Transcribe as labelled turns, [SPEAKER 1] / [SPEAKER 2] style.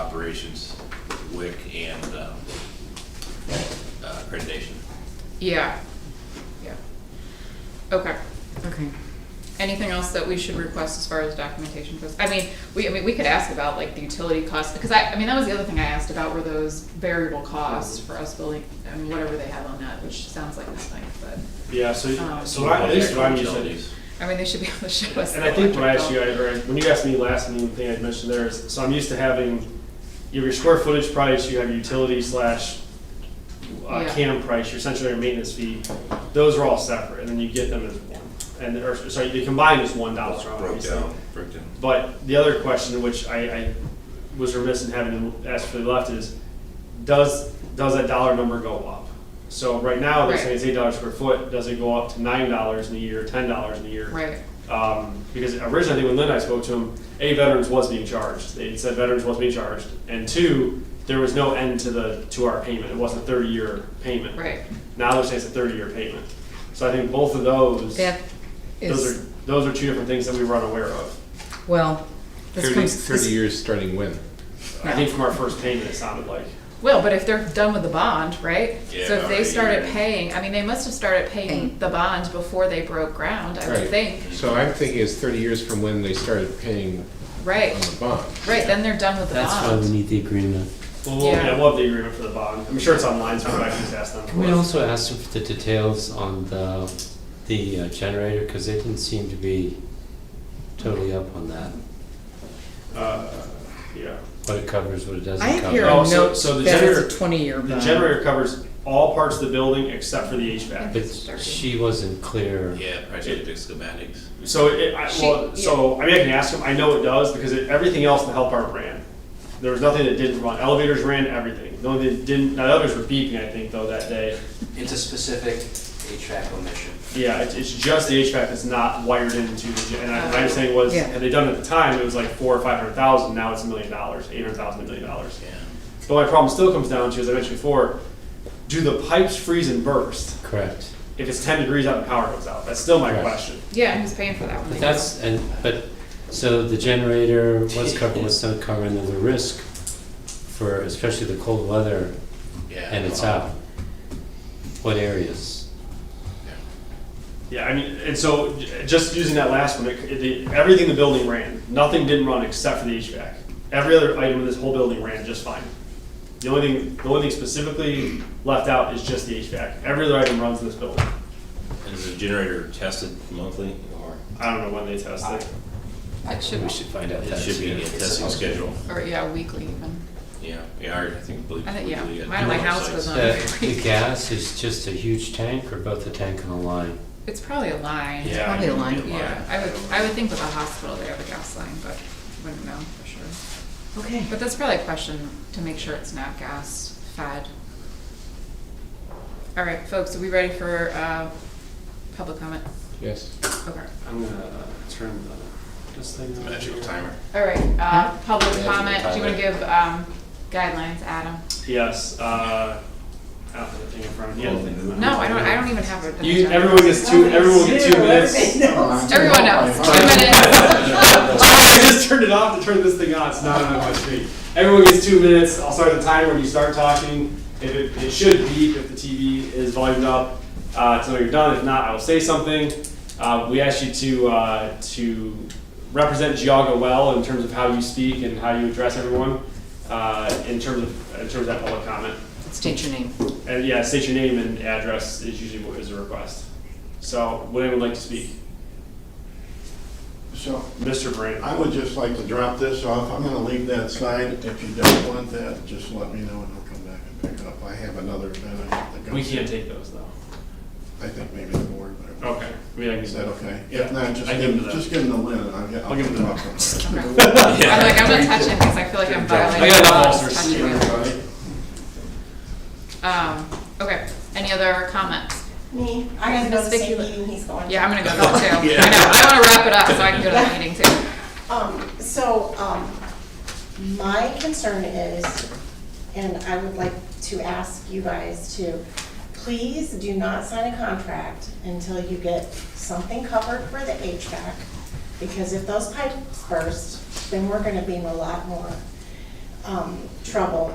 [SPEAKER 1] operations, WIC, and uh, uh, accreditation.
[SPEAKER 2] Yeah, yeah. Okay,
[SPEAKER 3] Okay.
[SPEAKER 2] anything else that we should request as far as documentation goes? I mean, we, I mean, we could ask about like the utility costs, because I, I mean, that was the other thing I asked about were those variable costs for us building, I mean, whatever they have on that, which sounds like nothing, but,
[SPEAKER 4] Yeah, so,
[SPEAKER 2] Um,
[SPEAKER 4] so I, at least what I'm using.
[SPEAKER 1] Utilities.
[SPEAKER 2] I mean, they should be able to show us.
[SPEAKER 4] And
[SPEAKER 2] the
[SPEAKER 4] I think when I asked
[SPEAKER 2] electric
[SPEAKER 4] you,
[SPEAKER 2] bill.
[SPEAKER 4] I, or when you asked me last, and the thing I mentioned there is, so I'm used to having, you have your square footage price, you have your utility slash uh,
[SPEAKER 2] Yeah.
[SPEAKER 4] CAM price, your essentially your maintenance fee, those are all separate, and then you get them as one. And, or, sorry, they combine as one dollar,
[SPEAKER 1] Broke
[SPEAKER 4] obviously.
[SPEAKER 1] down, broke down.
[SPEAKER 4] But the other question, which I, I was remiss in having to ask for the left, is does, does that dollar number go up? So right now, they're saying it's eight dollars per foot, does it go up to nine dollars in a year, ten dollars in a year?
[SPEAKER 2] Right,
[SPEAKER 4] Um, because originally, I think when Lynn and I spoke to him, A, veterans was being charged, they said veterans was being charged, and two, there was no end to the, to our payment, it wasn't a thirty-year payment.
[SPEAKER 2] right,
[SPEAKER 4] Now they're saying it's a thirty-year payment, so I think both of those,
[SPEAKER 3] That
[SPEAKER 4] those
[SPEAKER 3] is,
[SPEAKER 4] are, those are two different things that we were unaware of.
[SPEAKER 3] well, this
[SPEAKER 5] 30,
[SPEAKER 3] comes,
[SPEAKER 5] 30
[SPEAKER 3] this-
[SPEAKER 5] years starting when?
[SPEAKER 4] I think from our first payment, it sounded like.
[SPEAKER 2] well, but if they're done with the bond, right? So
[SPEAKER 1] Yeah,
[SPEAKER 2] if they
[SPEAKER 1] already,
[SPEAKER 2] started
[SPEAKER 1] yeah.
[SPEAKER 2] paying, I mean, they must have started paying
[SPEAKER 3] Paying.
[SPEAKER 2] the bond before they broke ground, I would
[SPEAKER 5] Right.
[SPEAKER 2] think,
[SPEAKER 5] So I'm thinking it's 30 years from when they started paying
[SPEAKER 2] right?
[SPEAKER 5] on the bond.
[SPEAKER 2] Right, then they're done with the
[SPEAKER 6] That's why we
[SPEAKER 2] bond.
[SPEAKER 6] need the agreement.
[SPEAKER 4] Well, we'll,
[SPEAKER 2] Yeah.
[SPEAKER 4] yeah, we'll have the agreement for the bond. I'm sure it's online, so I can just ask them.
[SPEAKER 6] Can we also ask them for the details on the, the uh, generator, because they didn't seem to be totally up on that,
[SPEAKER 4] Uh, yeah.
[SPEAKER 6] what it covers, what it doesn't
[SPEAKER 3] I
[SPEAKER 6] cover.
[SPEAKER 3] have here a
[SPEAKER 4] Oh, so-
[SPEAKER 3] note
[SPEAKER 4] so the
[SPEAKER 3] that
[SPEAKER 4] generator-
[SPEAKER 3] it's a twenty-year
[SPEAKER 4] The
[SPEAKER 3] bond.
[SPEAKER 4] generator covers all parts of the building except for the HVAC.
[SPEAKER 6] But she wasn't clear.
[SPEAKER 1] Yeah, project schematics.
[SPEAKER 4] So it, I,
[SPEAKER 2] She-
[SPEAKER 4] well, so I mean, I can ask them. I know it does because it, everything else in the help art ran. There was nothing that didn't run. Elevators ran everything. The only thing that didn't, now the others were beeping, I think, though, that day.
[SPEAKER 7] It's a specific HVAC omission.
[SPEAKER 4] Yeah, it's, it's just the HVAC that's not wired into the, gen- and I- my understanding was,
[SPEAKER 3] Yeah.
[SPEAKER 4] had they done it at the time, it was like four or five hundred thousand. Now it's a million dollars, eight hundred thousand, a million dollars.
[SPEAKER 1] Yeah.
[SPEAKER 4] But my problem still comes down to, as I mentioned before, do the pipes freeze and burst
[SPEAKER 6] Correct.
[SPEAKER 4] if it's 10 degrees out and power goes out? That's still my
[SPEAKER 6] Right.
[SPEAKER 4] question.
[SPEAKER 2] Yeah, who's paying for that one?
[SPEAKER 6] But that's, and, but, so the generator, what's covered, what's not covered, and then the risk for, especially the cold weather,
[SPEAKER 1] Yeah.
[SPEAKER 6] and it's out. What areas?
[SPEAKER 4] Yeah, I mean, and so j- just using that last one, it, it, everything in the building ran. Nothing didn't run except for the HVAC. Every other item in this whole building ran just fine. The only thing, the only thing specifically left out is just the HVAC. Every other item runs in this building.
[SPEAKER 1] And Is the generator tested monthly or?
[SPEAKER 4] I don't know when they test it.
[SPEAKER 2] It should,
[SPEAKER 6] We should find out
[SPEAKER 1] It
[SPEAKER 6] that
[SPEAKER 1] should be
[SPEAKER 6] too.
[SPEAKER 1] a testing schedule.
[SPEAKER 2] or yeah, weekly even.
[SPEAKER 1] Yeah, yeah, I think. believe-
[SPEAKER 2] I think, yeah.
[SPEAKER 1] believe-
[SPEAKER 2] Mine at my house
[SPEAKER 1] websites.
[SPEAKER 2] was on.
[SPEAKER 6] The, uh, the gas is just a huge tank or both a tank and a line?
[SPEAKER 2] It's probably a line.
[SPEAKER 1] Yeah,
[SPEAKER 3] probably a line.
[SPEAKER 1] it'd be
[SPEAKER 2] Yeah, I would, I would think with a hospital, they have a gas line, but wouldn't know for sure.
[SPEAKER 3] Okay.
[SPEAKER 2] But that's probably a question to make sure it's not gas fed. All right, folks, are we ready for, uh, public comment?
[SPEAKER 5] Yes.
[SPEAKER 2] Okay.
[SPEAKER 4] I'm gonna uh, turn the, this thing on.
[SPEAKER 1] Magical timer.
[SPEAKER 2] All right, uh, public
[SPEAKER 1] Yeah,
[SPEAKER 2] comment, do you
[SPEAKER 1] Tyler.
[SPEAKER 2] wanna give, um, guidelines, Adam?
[SPEAKER 4] Yes, uh, I don't have the thing in front of me. I don't think-
[SPEAKER 2] No, I don't, I don't even have a.
[SPEAKER 4] You, everyone gets two, everyone gets two minutes.
[SPEAKER 2] Everyone knows, two minutes.
[SPEAKER 4] I just turned it off to turn this thing on. It's not on my screen. Everyone gets two minutes. I'll start the timer when you start talking. If it, it should beep if the TV is volumed up uh, until you're done. If not, I will say something. Uh, we ask you to uh, to represent Geauga well in terms of how you speak and how you address everyone uh, in terms of in terms of that public comment.
[SPEAKER 3] State your name.
[SPEAKER 4] And yeah, state your name and address is usually what is a request. So, would anyone like to speak?
[SPEAKER 8] So
[SPEAKER 4] Mr. Brandon.
[SPEAKER 8] I would just like to drop this off. I'm gonna leave that side. If you don't want that, just let me know and I'll come back and pick it up. I have another event I have to go
[SPEAKER 4] We
[SPEAKER 8] to.
[SPEAKER 4] can't take those though.
[SPEAKER 8] I think maybe the board, but.
[SPEAKER 4] Okay. I mean, I can
[SPEAKER 8] Is that okay?
[SPEAKER 4] Yeah.
[SPEAKER 8] If not, just
[SPEAKER 4] I
[SPEAKER 8] give,
[SPEAKER 4] give it to
[SPEAKER 8] just give them the lid. I'll get-
[SPEAKER 4] I'll give it to
[SPEAKER 8] I'll pick it up.
[SPEAKER 2] I'm like, I'm not touching this, I feel like I'm violating.
[SPEAKER 4] I got enough
[SPEAKER 2] the laws touching
[SPEAKER 4] ulcers.
[SPEAKER 2] it. Um, okay, any other comments?
[SPEAKER 9] Me, I gotta go to the same meeting he's going to.
[SPEAKER 2] Yeah, I'm gonna go to that too. I know, I wanna wrap it up so I can go to the meeting too.
[SPEAKER 9] Um, so, um, my concern is, and I would like to ask you guys to, please do not sign a contract until you get something covered for the HVAC. Because if those pipes burst, then we're gonna be in a lot more. um, trouble